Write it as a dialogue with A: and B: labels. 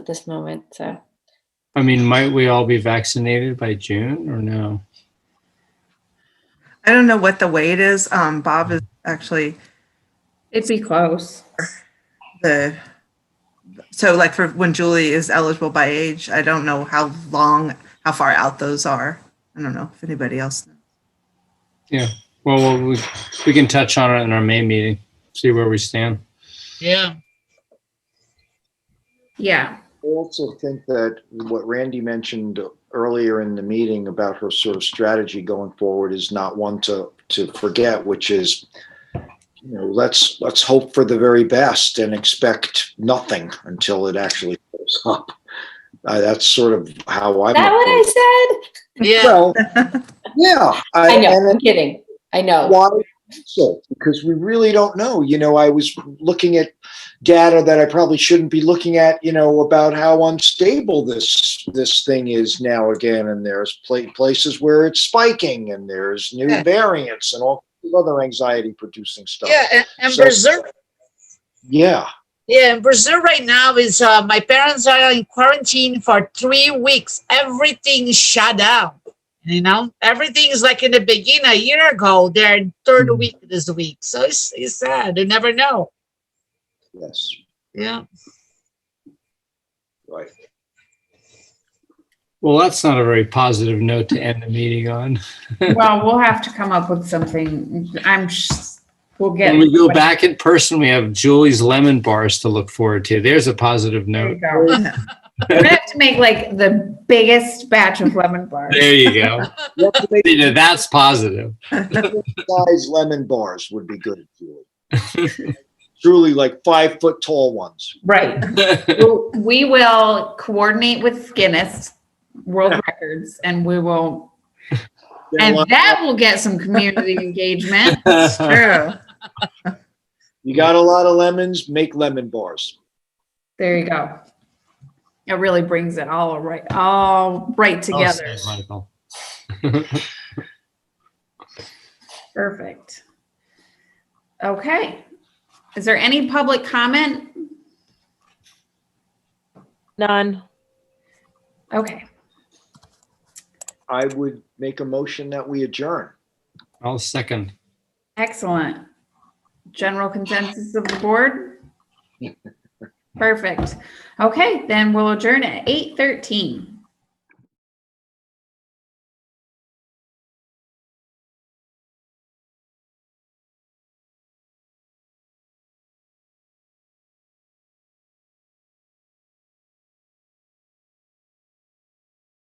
A: at this moment. So
B: I mean, might we all be vaccinated by June or no?
C: I don't know what the weight is. Um, Bob is actually
D: It'd be close.
C: the, so like for when Julie is eligible by age, I don't know how long, how far out those are. I don't know if anybody else.
B: Well, we'll- we, we can touch on it in our May meeting, see where we stand.
E: Yeah,
D: Yeah.
F: I also think that what Randy mentioned earlier in the meeting about her sort of strategy going forward is not one to, to forget, which is, you know, let's, let's hope for the very best and expect nothing until it actually goes up. Uh, that's sort of how I'm.
A: is that what I said?
E: yeah.
F: Well, yeah.
A: I know.
F: and-
A: I'm kidding. I know.
F: why so because we really don't know you know i was looking at data that i probably shouldn't be looking at you know about how unstable this this thing is now again and there's pla- places where it's spiking and there's new
C: Yeah.
F: variants and all kinds of other anxiety producing stuff
E: Yeah, and, and
F: So-
E: Brazil,
F: yeah
E: yeah, and Brazil right now is, uh, my parents are in quarantine for three weeks. Everything is shut down. You know, everything is like in the beginning a year ago. They're in third
B: Mhm.
E: week this week. So it's, it's sad. You never know.
F: yes
E: Yeah.
F: right
B: Well, that's not a very positive note to end the meeting on.
D: Well, we'll have to come up with something. I'm, s- we'll get.
B: When we go back in person, we have Julie's lemon bars to look forward to. There's a positive
D: There you
B: note.
D: go. We're gonna have to make like the biggest batch of lemon bars.
B: There you go.
F: You have to make
B: You know, That's positive.
F: size lemon bars would be good Julie. truly like five foot tall ones
D: Right. We'll- We will coordinate with Guinness World Records and we will, and that will get some community engagement.
C: True.
F: you got a lot of lemons make lemon bars
D: There you go. It really brings it all right, all right
B: Well
D: together.
B: said, Michael.
D: Perfect. Okay. Is there any public comment?
G: None.
D: Okay.
F: I would make a motion that we adjourn.
B: I'll second.
D: Excellent. General consensus of the board? Perfect. Okay, then we'll adjourn at eight thirteen.